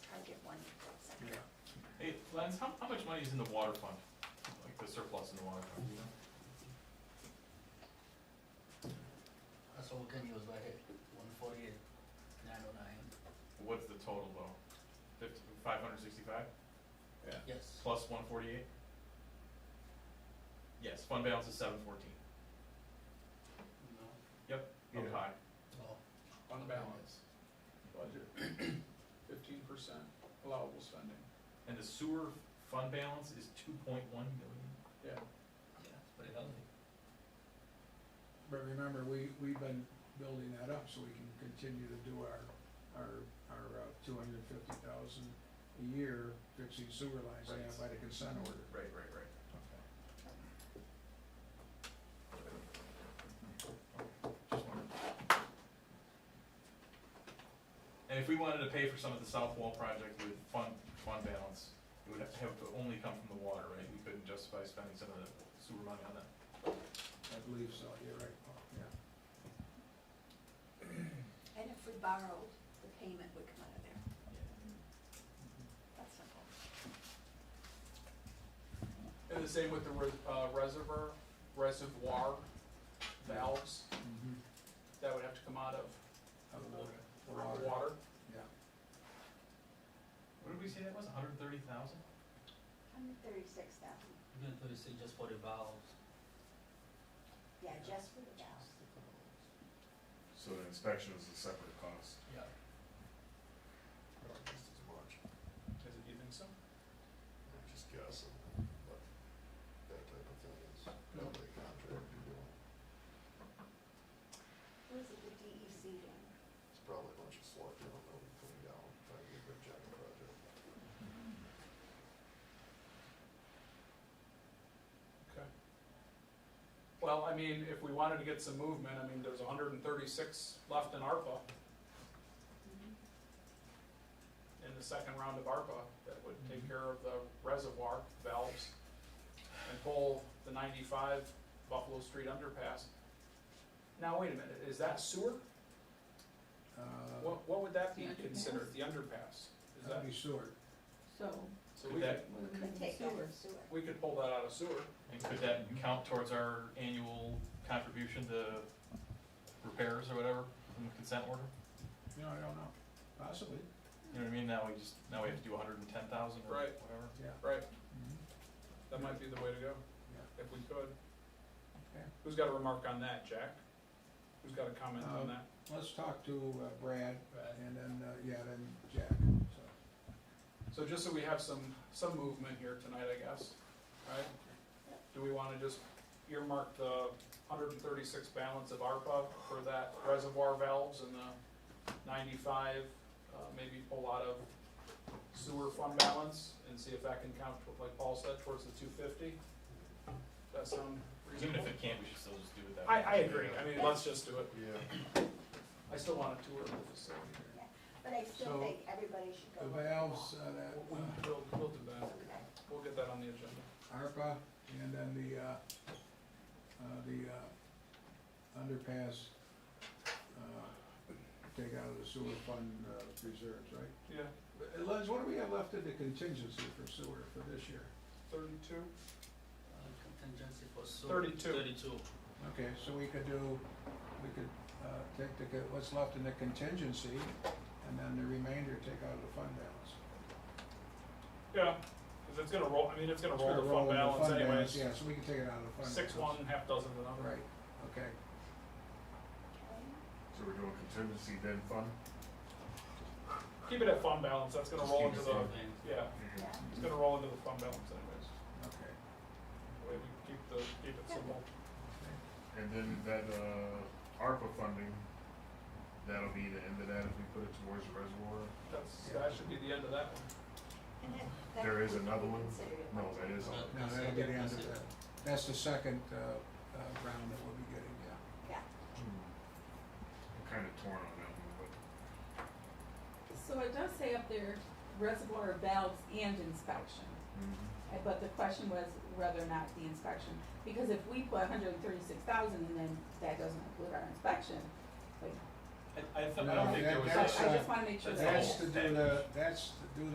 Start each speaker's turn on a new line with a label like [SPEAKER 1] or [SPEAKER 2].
[SPEAKER 1] one second.
[SPEAKER 2] Yeah.
[SPEAKER 3] Hey, Lance, how, how much money is in the water fund? Like the surplus in the water fund, do you know?
[SPEAKER 2] That's what we can use right here, one forty-eight, nine oh nine,
[SPEAKER 3] What's the total though? Fifty, five hundred sixty-five
[SPEAKER 2] yes.
[SPEAKER 3] plus one forty-eight? Yes, fund balance is seven fourteen.
[SPEAKER 2] No.
[SPEAKER 3] Yep, up
[SPEAKER 4] Yeah.
[SPEAKER 3] high.
[SPEAKER 2] Oh,
[SPEAKER 5] On balance, budget, fifteen percent allowable spending,
[SPEAKER 3] And the sewer fund balance is two point one million?
[SPEAKER 5] yeah.
[SPEAKER 2] yeah, it's pretty healthy.
[SPEAKER 4] But remember, we, we've been building that up so we can continue to do our, our, our uh, two hundred and fifty thousand a year fixing sewer lines, they have by the consent order.
[SPEAKER 3] Right, right, right. Just wondering. And if we wanted to pay for some of the south wall project with fund, fund balance, it would have to have to only come from the water, right? We couldn't justify spending some of the sewer money on that.
[SPEAKER 4] I believe so, you're right, Paul, yeah.
[SPEAKER 1] And if we borrowed, the payment would come out of there. That's simple.
[SPEAKER 5] And the same with the res- uh, reservoir, reservoir valves,
[SPEAKER 4] Mhm.
[SPEAKER 5] that would have to come out of
[SPEAKER 4] Out of the- the water,
[SPEAKER 5] water.
[SPEAKER 4] Yeah,
[SPEAKER 3] What did we say that was, hundred and thirty thousand?
[SPEAKER 1] Hundred thirty-six thousand,
[SPEAKER 2] We're gonna put this in just for the valves.
[SPEAKER 1] yeah, just for the valves.
[SPEAKER 6] So the inspection is a separate cost.
[SPEAKER 2] Yeah.
[SPEAKER 6] Not just as much,
[SPEAKER 5] Is it, you think so?
[SPEAKER 6] I'm just guessing, but that type of thing is probably a contract you're doing.
[SPEAKER 1] What is it, the E DEC doing?
[SPEAKER 6] It's probably a bunch of sludge, I don't know, coming down, trying to get a giant project.
[SPEAKER 5] Okay. Well, I mean, if we wanted to get some movement, I mean, there's hundred and thirty-six left in ARPA, in the second round of ARPA, that would take care of the reservoir valves and pull the ninety-five Buffalo Street underpass. Now, wait a minute, is that sewer?
[SPEAKER 4] uh,
[SPEAKER 5] What, what would that be
[SPEAKER 7] The underpass?
[SPEAKER 5] considered, the underpass? Is
[SPEAKER 4] that'd
[SPEAKER 5] that,
[SPEAKER 4] be short,
[SPEAKER 7] So,
[SPEAKER 5] so
[SPEAKER 3] Could
[SPEAKER 5] we could,
[SPEAKER 3] that-
[SPEAKER 7] we
[SPEAKER 1] We could take that as sewer.
[SPEAKER 5] we could pull that out of sewer.
[SPEAKER 3] And could that count towards our annual contribution to repairs or whatever from the consent order?
[SPEAKER 4] you know, I don't know, possibly,
[SPEAKER 3] You know what I mean? Now we just, now we have to do hundred and ten thousand or
[SPEAKER 5] Right.
[SPEAKER 3] whatever.
[SPEAKER 4] yeah.
[SPEAKER 5] Right.
[SPEAKER 4] Mhm.
[SPEAKER 5] Mm-hmm. That might be the way to go,
[SPEAKER 4] Yeah.
[SPEAKER 5] if we could.
[SPEAKER 4] Okay.
[SPEAKER 5] Who's got a remark on that, Jack? Who's got a comment on
[SPEAKER 4] Um,
[SPEAKER 5] that?
[SPEAKER 4] Let's talk to uh, Brad, and then, uh, yeah, then Jack, so.
[SPEAKER 5] So just so we have some, some movement here tonight, I guess, right? Do we wanna just earmark the hundred and thirty-six balance of ARPA for that reservoir valves and the ninety-five, uh, maybe pull out of sewer fund balance and see if that can count, like Paul said, towards the two fifty? That sound
[SPEAKER 3] Even if
[SPEAKER 5] reasonable?
[SPEAKER 3] it can't, we should still just do it that way.
[SPEAKER 5] I, I agree, I mean, let's just do it,
[SPEAKER 6] Yeah.
[SPEAKER 5] I still want a tour of the facility here.
[SPEAKER 1] But I still
[SPEAKER 4] So,
[SPEAKER 1] think everybody should go.
[SPEAKER 4] The
[SPEAKER 1] look at
[SPEAKER 4] valves, uh,
[SPEAKER 5] We'll-
[SPEAKER 4] that, uh,
[SPEAKER 5] We'll, we'll do
[SPEAKER 1] that.
[SPEAKER 5] that,
[SPEAKER 1] Okay.
[SPEAKER 5] we'll get that on the agenda.
[SPEAKER 4] ARPA, and then the, uh, uh, the, uh, underpass, uh, take out of the sewer fund, uh, reserves, right?
[SPEAKER 5] Yeah,
[SPEAKER 4] Uh, Liz, what do we have left in the contingency for sewer for this year?
[SPEAKER 5] thirty-two?
[SPEAKER 2] Uh, Contingency for sewer.
[SPEAKER 5] 32.
[SPEAKER 2] Thirty-two.
[SPEAKER 4] Okay, so we could do, we could, uh, take the, co- what's left in the contingency, and then the remainder take out of the fund balance.
[SPEAKER 5] Yeah, because it's gonna roll, I mean, it's gonna
[SPEAKER 4] It's
[SPEAKER 5] roll
[SPEAKER 4] gonna
[SPEAKER 5] the
[SPEAKER 4] roll
[SPEAKER 5] fund
[SPEAKER 4] in the
[SPEAKER 5] balance
[SPEAKER 4] fund balance,
[SPEAKER 5] anyways.
[SPEAKER 4] Yeah, so we can take it out of the fund.
[SPEAKER 5] Six
[SPEAKER 4] balance.
[SPEAKER 5] one, half dozen of another.
[SPEAKER 4] Right, okay.
[SPEAKER 6] So we're doing contingency then fund?
[SPEAKER 5] Keep it at fund balance, that's gonna
[SPEAKER 6] Just
[SPEAKER 5] roll
[SPEAKER 6] keep
[SPEAKER 5] into
[SPEAKER 6] it
[SPEAKER 5] the,
[SPEAKER 6] fund.
[SPEAKER 5] yeah,
[SPEAKER 1] Yeah.
[SPEAKER 5] it's gonna roll into the fund balance anyways.
[SPEAKER 4] Okay.
[SPEAKER 5] The way we keep the, keep it simple.
[SPEAKER 6] And then that, uh, ARPA funding, that'll be the end of that if we put it towards the reservoir.
[SPEAKER 5] That's, that should be the end of that one.
[SPEAKER 1] And that- that
[SPEAKER 6] There is
[SPEAKER 1] would be
[SPEAKER 6] another one?
[SPEAKER 1] considered a
[SPEAKER 6] No,
[SPEAKER 1] budget.
[SPEAKER 6] that is all.
[SPEAKER 4] No, that'll be the end of that. That's the second uh, uh, round that we'll be getting, yeah.
[SPEAKER 1] Yeah.
[SPEAKER 6] Hmm. I'm kinda torn on that one,
[SPEAKER 7] So it does say up there reservoir valves and inspection,
[SPEAKER 6] but.
[SPEAKER 7] Uh, but the question was whether or not the inspection, because if we put hundred and thirty-six thousand and then that doesn't include our inspection, like,
[SPEAKER 3] I, I, th- I
[SPEAKER 4] No,
[SPEAKER 3] don't think there
[SPEAKER 4] that-
[SPEAKER 3] was.
[SPEAKER 7] I I
[SPEAKER 4] That's, uh,
[SPEAKER 7] just wanna make sure
[SPEAKER 3] That's
[SPEAKER 7] that.
[SPEAKER 4] That's to do the, that's